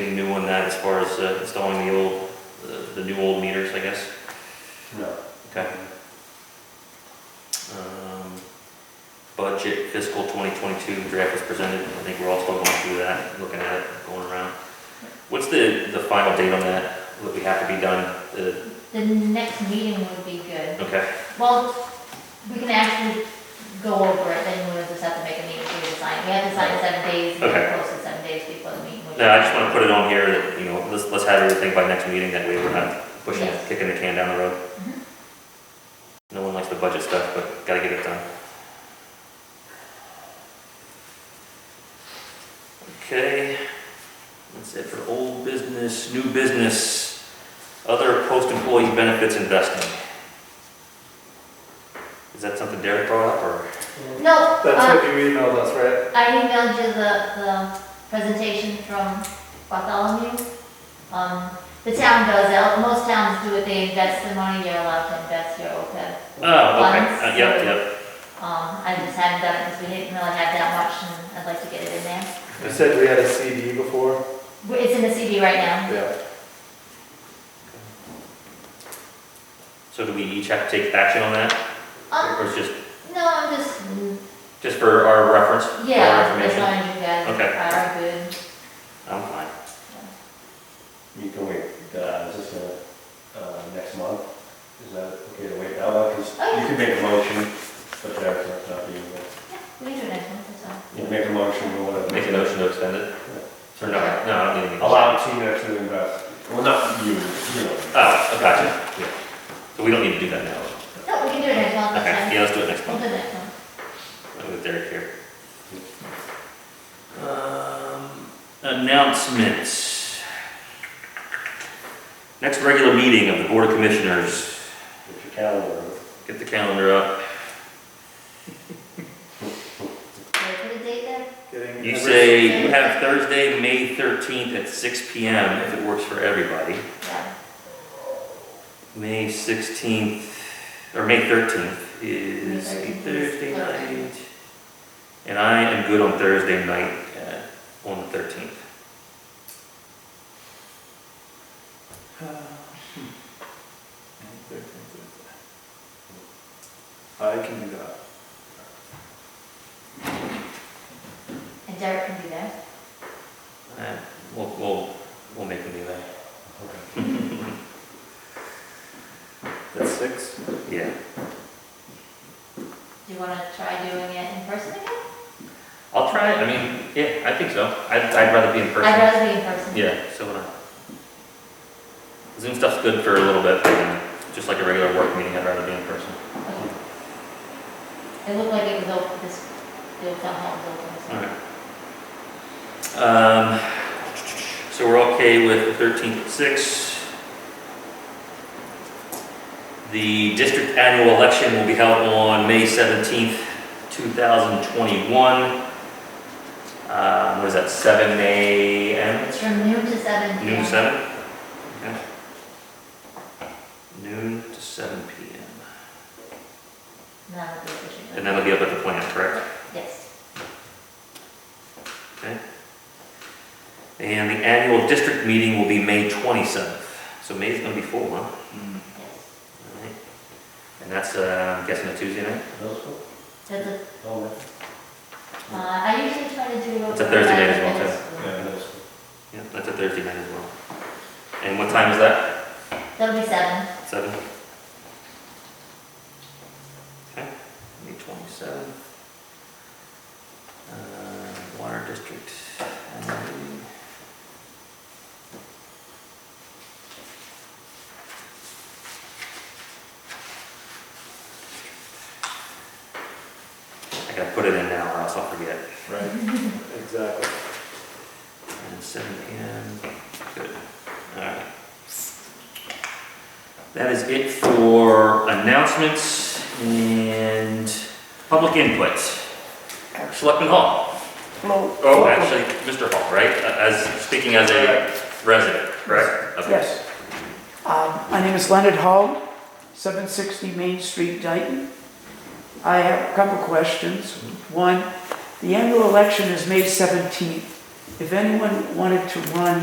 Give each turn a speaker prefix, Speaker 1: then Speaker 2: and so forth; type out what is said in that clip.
Speaker 1: that as far as uh, installing the old, uh, the- the new old meters, I guess?
Speaker 2: No.
Speaker 1: Okay. Um, Budget fiscal 2022 draft was presented, I think we're all still going through that, looking at it, going around. What's the, the final date on that, that we have to be done? Uh,
Speaker 3: The next meeting would be good.
Speaker 1: Okay,
Speaker 3: Well, we can actually go over it, then we'll just have to make a meeting to decide. We have to sign in seven days, we
Speaker 1: Okay.
Speaker 3: have to post it seven days before the meeting. which-
Speaker 1: no, I just want to put it on here that, you know, let's, let's have everything by next meeting, that way we're not pushing,
Speaker 3: Yes.
Speaker 1: kicking the can down the road.
Speaker 3: Mhm.
Speaker 1: No one likes the budget stuff, but gotta get it done. Okay, that's it for old business, new business, other post-employee benefits investing. Is that something Derek brought up, or?
Speaker 3: No,
Speaker 2: That's
Speaker 3: uh,
Speaker 2: what you emailed us, right?
Speaker 3: I emailed you the, the presentation from Bartholomew. Um, the town does, that. most towns do it, they invest the money, you're allowed to invest your OPEB.
Speaker 1: Oh, okay,
Speaker 3: Funds.
Speaker 1: Uh, yep, yep,
Speaker 3: Um, I just haven't done it because we didn't really have that much and I'd like to get it in there.
Speaker 2: You said we had a CD before?
Speaker 3: But It's in the CD right now.
Speaker 2: Yeah.
Speaker 1: so do we each have to take action on that,
Speaker 3: Um,
Speaker 1: or is just,
Speaker 3: no, I'm just,
Speaker 1: just for our reference? for our
Speaker 3: yeah, as
Speaker 1: information?
Speaker 3: long as you guys
Speaker 1: Okay.
Speaker 3: are good.
Speaker 1: I'm fine.
Speaker 4: You can wait, uh, is this, uh, uh, next month? Is that okay to wait that long? 'Cause
Speaker 3: Oh, yeah.
Speaker 4: you can make a motion, but that's not- not you, but
Speaker 3: We can do next one, that's fine.
Speaker 4: you can make a motion or whatever.
Speaker 1: Make a motion to extend it? Or no, no, I don't need anything.
Speaker 4: Allow Tina to invest, well, not you, you know.
Speaker 1: Oh, gotcha, yeah. So we don't need to do that now.
Speaker 3: No, we can do it next one,
Speaker 1: Okay,
Speaker 3: that's
Speaker 1: yeah, let's do it next
Speaker 3: fine. We'll
Speaker 1: month.
Speaker 3: do next one.
Speaker 1: I'll With Derek here. Um, Announcements. Next regular meeting of the Board of Commissioners.
Speaker 4: Get your calendar.
Speaker 1: Get the calendar up.
Speaker 3: Do I put a date there?
Speaker 2: Getting
Speaker 1: You
Speaker 2: numbers.
Speaker 1: say you have Thursday, May 13th at 6 PM, if it works for everybody.
Speaker 3: Yeah.
Speaker 1: May 16th, or May 13th is
Speaker 3: May
Speaker 1: a
Speaker 3: 13th is
Speaker 1: Thursday
Speaker 3: Thursday.
Speaker 1: night. And I am good on Thursday night at, on the 13th.
Speaker 2: I can do that.
Speaker 3: And Derek can do that.
Speaker 1: Uh, We'll, we'll, we'll make them do that.
Speaker 2: That's six?
Speaker 1: Yeah.
Speaker 3: Do you wanna try doing it in person again?
Speaker 1: I'll try it, I mean, yeah, I think so. I'd, I'd rather be in
Speaker 3: I'd
Speaker 1: person.
Speaker 3: rather be in person.
Speaker 1: Yeah, so would I. Zoom stuff's good for a little bit, but, um, just like a regular work meeting, I'd rather be in person.
Speaker 3: Okay. It looked like it was open, this, the old town hall was open. so-
Speaker 1: Alright. Um, so we're okay with thirteen six. The district annual election will be held on May seventeenth, two thousand twenty-one. Uh, what is that, seven AM,
Speaker 3: It's from noon to seven.
Speaker 1: noon
Speaker 3: p.m.
Speaker 1: to seven? Okay. Noon to seven PM.
Speaker 3: And that'll be official.
Speaker 1: And that'll be up at the plant, correct?
Speaker 3: Yes.
Speaker 1: And the annual district meeting will be May twenty-seventh. So May's gonna be full, huh?
Speaker 3: Yes.
Speaker 1: Alright. And that's, uh, I'm guessing a Tuesday night?
Speaker 4: Middle school?
Speaker 3: That's a,
Speaker 4: Oh, right.
Speaker 3: uh, I usually try to do.
Speaker 1: It's a Thursday night as well,
Speaker 3: eleven
Speaker 1: too.
Speaker 3: minutes.
Speaker 4: Yeah, middle school.
Speaker 1: Yeah, that's a Thursday night as well. And what time is that?
Speaker 3: That'll be seven.
Speaker 1: Seven? Okay, May twenty-seven. Uh, Water District. um, I gotta put it in now or else I'll forget.
Speaker 2: Right, exactly.
Speaker 1: And seven PM, good, alright. That is it for announcements and public input. Selectman Hall. Oh, actually, Mr. Hall, right, as, speaking as a resident, correct? Okay.
Speaker 5: Yes. Um, My name is Leonard Hall, 760 Main Street, Dayton. I have a couple questions. One, the annual election is May 17th. If anyone wanted to run